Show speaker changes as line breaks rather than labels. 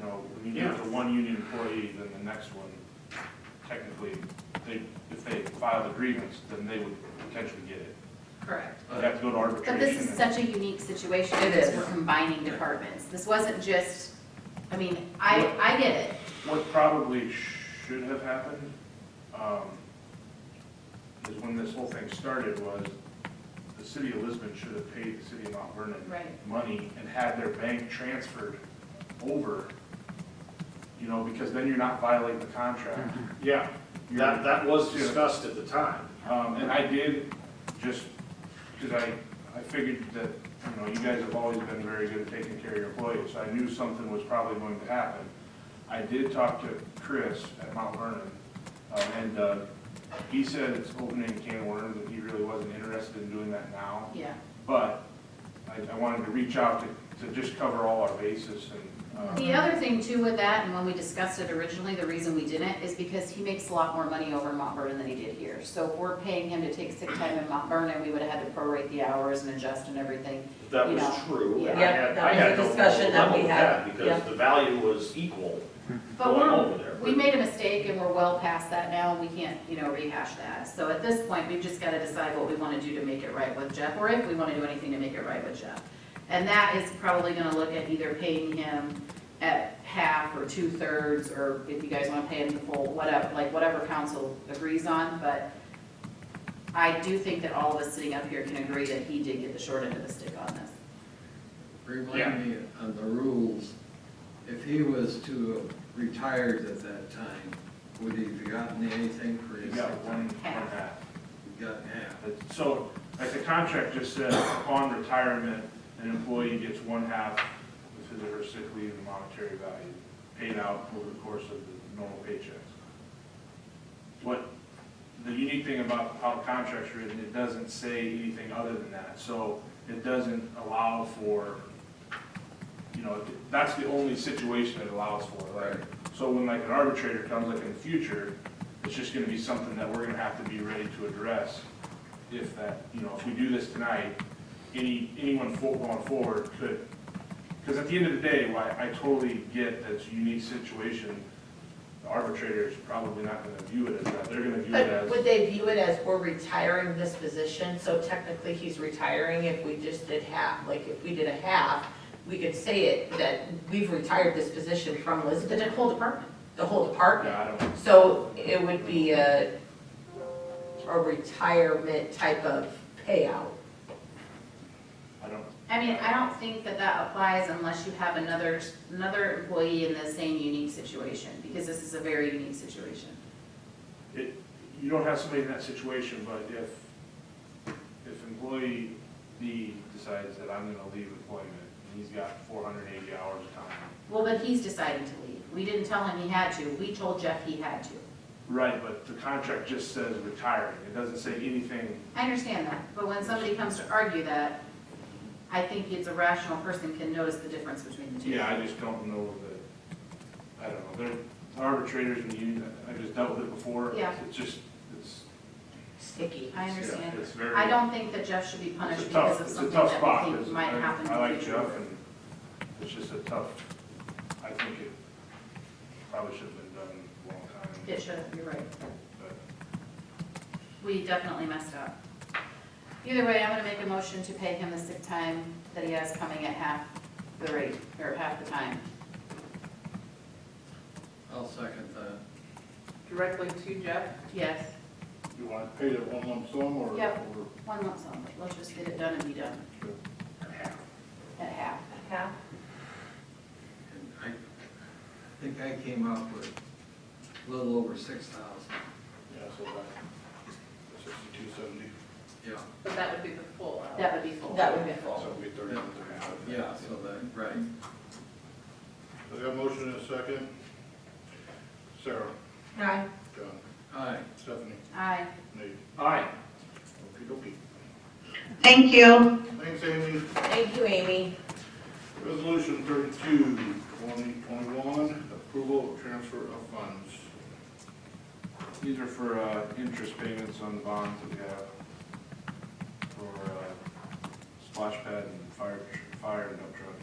know, when you get to one union employee, then the next one, technically, they, if they file a grievance, then they would potentially get it.
Correct.
They have to go to arbitration.
But this is
and-
such a unique situation
It
because
is.
we're combining departments. This wasn't just, I mean, I, I get it.
What probably should have happened, um, is when this whole thing started was, the city of Lisbon should have paid the city of Mount Vernon
Right.
money and had their bank transferred over, you know, because then you're not violating the contract.
Yeah, that, that was discussed at the time.
Um, and I did, just, cause I, I figured that, you know, you guys have always been very good at taking care of your employees, so I knew something was probably going to happen. I did talk to Chris at Mount Vernon, um, and, uh, he said it's opening a can of worms, and he really wasn't interested in doing that now.
Yeah.
But I, I wanted to reach out to, to just cover all our bases and, uh,
The other thing too with that, and when we discussed it originally, the reason we didn't is because he makes a lot more money over in Mount Vernon than he did here. So if we're paying him to take sick time in Mount Vernon, we would have had to prorate the hours and adjust and everything.
That was
Yeah.
true. and I
Yeah.
had-
That
I
was
had
a
no
discussion that
problem
we
with
had.
that
Yeah.
Because the value was equal
But
going over
we're,
there.
we made a mistake and we're well past that now, we can't, you know, rehash that. So at this point, we've just gotta decide what we wanna do to make it right with Jeff, or if we wanna do anything to make it right with Jeff. And that is probably gonna look at either paying him at half or two-thirds, or if you guys wanna pay him the full, whatever, like whatever council agrees on, but I do think that all of us sitting up here can agree that he did get the short end of the stick on this.
Yeah.
Remind me on the rules, if he was to have retired at that time, would he have gotten anything for
you
his?
got one, one half.
Gotten half.
But- So, like the contract just says, upon retirement, an employee gets one half of his or her sick leave and monetary value paid out over the course of the normal paychecks. What, the unique thing about how the contract's written, it doesn't say anything other than that. So it doesn't allow for, you know, that's the only situation it allows for, like, so when like an arbitrator comes, like in the future, it's just gonna be something that we're gonna have to be ready to address if that, you know, if we do this tonight, any, anyone for- going forward could, because at the end of the day, why, I totally get that it's a unique situation. The arbitrator is probably not gonna view it as that, they're gonna view it
But
as,
would they view it as we're retiring this position, so technically he's retiring if we just did half, like if we did a half, we could say it, that we've retired this position from
The
Lisbon,
whole department.
the whole department.
yeah, I don't,
So it would be a, a retirement type of payout.
I don't,
I mean, I don't think that that applies unless you have another, another employee in the same unique situation, because this is a very unique situation.
it, you don't have somebody in that situation, but if, if employee B decides that I'm gonna leave employment, and he's got four hundred and eighty hours of time.
Well, but he's deciding to leave. We didn't tell him he had to. We told Jeff he had to.
Right, but the contract just says retiring, it doesn't say anything
I understand that, but when somebody comes to argue that, I think it's a rational person can notice the difference between the two.
Yeah, I just don't know that, I don't know, they're arbitrators and you, I just dealt with it before.
Yeah.
It's just, it's,
Sticky.
I
yeah,
understand.
it's very.
I don't think that Jeff should be
it's
punished
a tough-
because of
it's a
something
tough
that
spot,
we think
it's-
might
I-
happen. in
I
the
like
future.
Jeff and it's just a tough, I think it probably should have been done a long time,
It should, you're right.
but
We definitely messed up. Either way, I'm gonna make a motion to pay him the sick time that he has coming at half the rate, or half the time.
I'll second that.
directly to Jeff?
Yes,
You want to pay that one lump sum or?
Yep.
or-
one lump sum, let's just get it done and be done at half.
Yeah.
And I, I think I came up with a little over six thousand.
Yeah, so about sixty-two seventy,
Yeah,
But that would be the full hour.
That would be full.
That would be
so
full.
it'd be thirty-one, thirty-five.
yeah, so that, right.
I got a motion and a second. Sarah,
Aye.
John,
Aye.
Stephanie,
Aye.
Nate,
Aye.
okey dokey.
Thank you.
Thanks, Amy.
Thank you, Amy.
Resolution 32, 2021, approval of transfer of funds.
These are for, uh, interest payments on the bonds that we have for, uh, splash pad and fire, fire and dump truck.